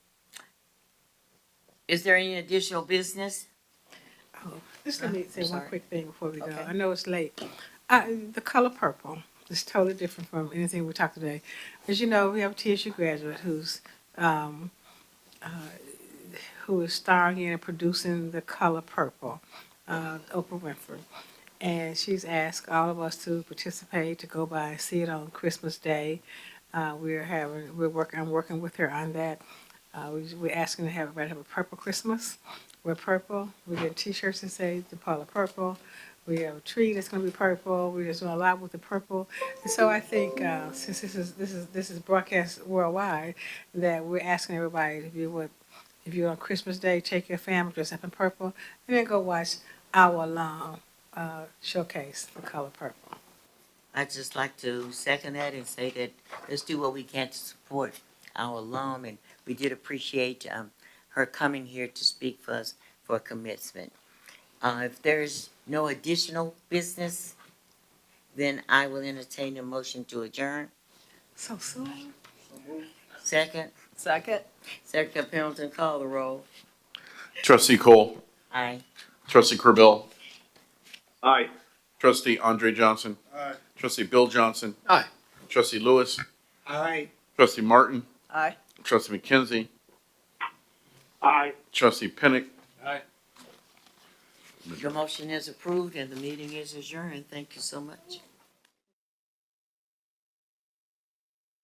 Is there any additional business? Just let me say one Oh, sorry. quick thing before we go. Okay. I know it's late. I, the color purple is totally different from anything we talked today. As you know, we have a TSU graduate who's, um, uh, who is starring in and producing The Color Purple, uh, Oprah Winfrey. And she's asked all of us to participate, to go by and see it on Christmas Day. Uh, we're having, we're working, I'm working with her on that. Uh, we, we're asking to have everybody have a purple Christmas. We're purple. We get T-shirts that say the Paula Purple. We have a tree that's going to be purple. We're just doing a lot with the purple. And so I think uh, since this is this is this is broadcast worldwide, that we're asking everybody to be what if you're on Christmas Day, take your family, dress up in purple, and then go watch our long uh, showcase, the color purple. I'd just like to second that and say that let's do what we can to support our alum, and we did appreciate um, her coming here to speak for us for commencement. Uh, If there's no additional business, then I will entertain a motion to adjourn. So soon. Second, Second. Secretary Pendleton, call the roll. Trustee Cole, Aye. trustee Corbill, Aye. trustee Andre Johnson. Aye. Trustee Bill Johnson. Aye. Trustee Lewis, Aye. trustee Martin, Aye. trustee McKenzie, Aye. trustee Pinnick. Aye. Your motion is approved and the meeting is adjourned. Thank you so much.